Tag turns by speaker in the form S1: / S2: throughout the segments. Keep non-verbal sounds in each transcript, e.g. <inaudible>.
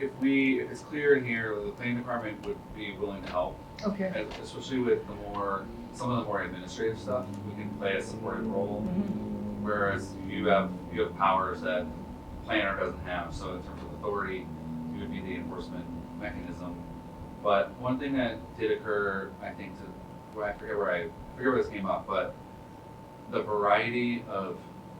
S1: if we, if it's clear in here, the planning department would be willing to help,
S2: Okay.
S1: and especially with the more, some of the more administrative stuff, we can play a supportive role. Whereas you have, you have powers that the planner doesn't have, so in terms of authority, you would be the enforcement mechanism. But one thing that did occur, I think, to, where I forget where I, I forget where this came up, but the variety of,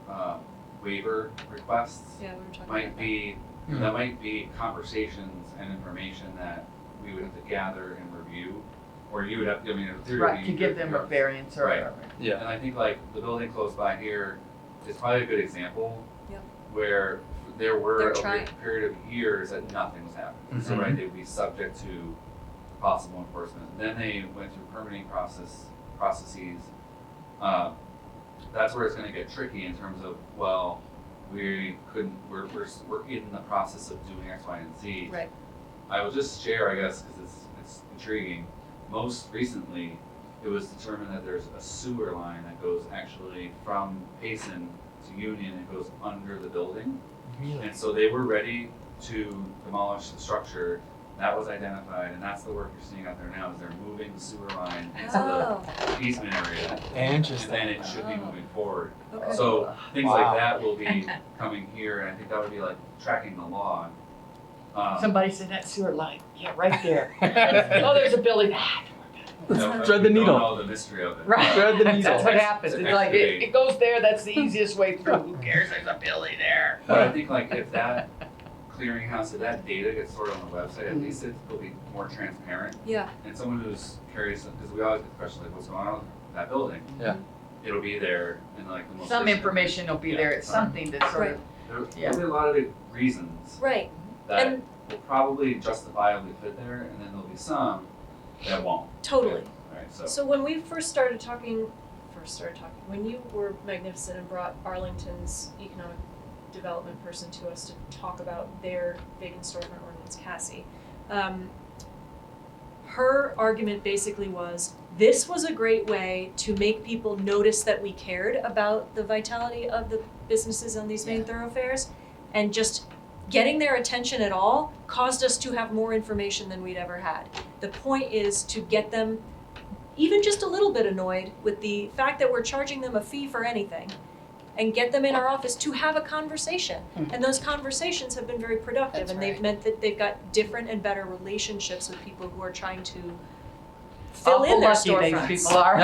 S1: uh, waiver requests
S3: Yeah, we were talking about
S1: might
S3: that.
S1: be, that might be conversations and information that we would have to gather and review, or you would have, I mean, in theory.
S2: Right, to
S1: you-
S2: give them a variance or
S1: Right.
S2: whatever.
S4: Yeah.
S1: And I think like the building close by here is probably a good example.
S3: Yep.
S1: Where there were
S3: They're
S1: over a
S3: trying.
S1: period of years that nothing was happening, so
S4: Mhm.
S1: right, they'd be subject to possible enforcement. Then they went through permitting process, processes. Uh, That's where it's gonna get tricky in terms of, well, we couldn't, we're, we're, s- we're in the process of doing X, Y, and Z.
S3: Right.
S1: I will just share, I guess, because it's, it's intriguing. Most recently, it was determined that there's a sewer line that goes actually from Payson to Union and goes under the building.
S4: Really?
S1: And so they were ready to demolish the structure. That was identified, and that's the work you're seeing out there now, is they're moving the sewer line into
S3: Oh,
S1: the easement area. And then
S4: Interesting.
S1: it should be moving forward.
S3: okay.
S1: So things
S4: Wow.
S1: like that will
S3: <laughs>
S1: be coming here, and I think that would be like tracking the law. Um,
S2: Somebody said that sewer line, yeah, right there. <laughs>
S4: Thread
S2: Oh, there's a building,
S1: you know,
S4: Thread the
S1: we don't
S4: needle.
S1: know the mystery of it.
S2: <laughs> Right.
S1: but-
S4: the
S2: that's
S4: needle.
S2: what happens, it's like, it, it goes there, that's the easiest way through, who cares, there's a building there.
S1: But I think like if that clearinghouse, if that data gets stored on the website, at
S2: Mhm.
S1: least it will be more transparent.
S3: Yeah,
S1: And someone who's curious, because we always get the question like, what's going on with that building?
S4: Yeah.
S1: It'll be there in like the most.
S2: Some
S1: recent-
S2: information will be there, it's something that's sort of,
S1: There-
S2: Yeah.
S1: There'll be a lot of the reasons
S3: right,
S1: that
S3: and
S1: will probably justifiably fit there, and then there'll be some that won't.
S3: totally.
S1: Alright, so.
S3: So when we first started talking, first started talking, when you were magnificent and brought Arlington's economic development person to us to talk about their vacant storefront ordinance, Cassie, um, her argument basically was, this was a great way to make people notice that we cared about the vitality of the businesses on these main thoroughfares. And just getting their attention at all caused us to have more information than we'd ever had. The point is to get them even just a little bit annoyed with the fact that we're charging them a fee for anything and get them in our office to have a conversation.
S2: Mhm.
S3: And those conversations have been very productive
S2: That's
S3: and they've
S2: right.
S3: meant that they've got different and better relationships with people who are trying to fill
S2: awful
S3: in their
S2: lucky
S3: storefronts.
S2: these people <laughs> are.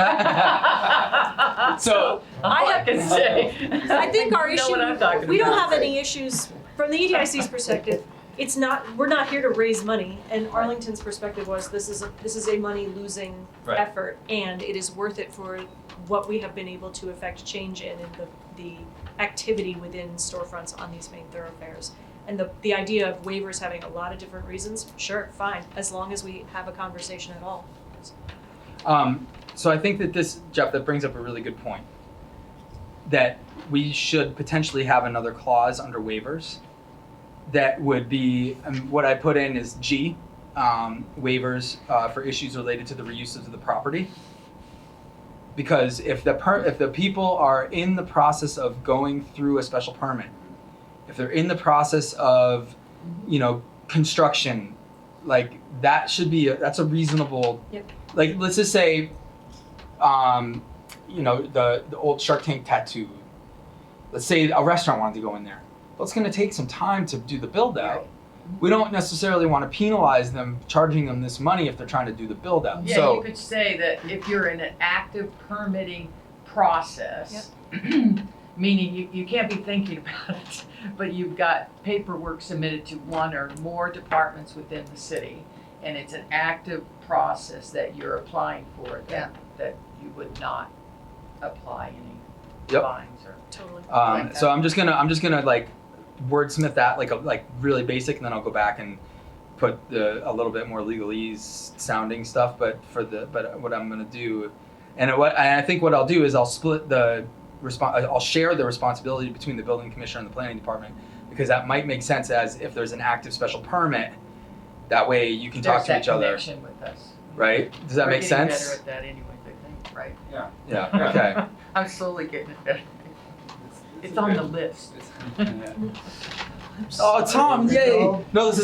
S4: So-
S2: All <laughs> I can say.
S3: I think
S2: <laughs>
S3: our
S2: You know
S3: issue,
S2: what I'm talking
S3: we don't
S2: about.
S3: have any issues, from the E EDIC's perspective, it's not, we're not here to raise money. And Arlington's perspective was, this is, a- this is a money-losing
S1: Right.
S3: effort, and it is worth it for what we have been able to affect change in, in the, the activity within storefronts on these main thoroughfares. And the, the idea of waivers having a lot of different reasons, sure, fine, as long as we have a conversation at all.
S4: <laughs> Um, so I think that this, Jeff, that brings up a really good point. That we should potentially have another clause under waivers that would be um, what I put in is G, um, waivers uh, for issues related to the reuse of the property. Because if the per- if the people are in the process of going through a special permit, if they're in the process of, you know, construction, like that should be a, that's a reasonable like let's just say um you know the the old shark tank tattoo let's say a restaurant wanted to go in there well it's going to take some time to do the build out we don't necessarily want to penalize them charging them this money if they're trying to do the build out
S2: Yeah, you
S4: so
S2: could say that if you're in an active permitting process, <clears throat> meaning you, you can't be thinking <laughs> about it, but you've got paperwork submitted to one or more departments within the city, and it's an active process that you're applying for, that, that you would not apply any
S4: Yep.
S2: fines or.
S3: Totally.
S4: um
S2: like
S4: so i'm just going to i'm just going to like wordsmith that like a, like really basic and then i'll go back and put the a little bit more legalese sounding stuff but for the but what i'm going to do and what and i think what i'll do is i'll split the respon i'll share the responsibility between the building commissioner and the planning department because that might make sense as if there's an active special permit that way you can
S2: There's
S4: talk to
S2: that
S4: each other
S2: connection with us.
S4: right does that
S2: We're
S4: make
S2: getting
S4: sense
S2: better at that anyway, I think, right?
S4: yeah okay
S2: <laughs> I'm slowly getting it better.
S1: it's-
S2: It's
S1: a
S2: on
S1: good-
S2: the list.
S1: it's-
S4: oh tom
S2: There we
S4: yay
S2: go.
S4: no this is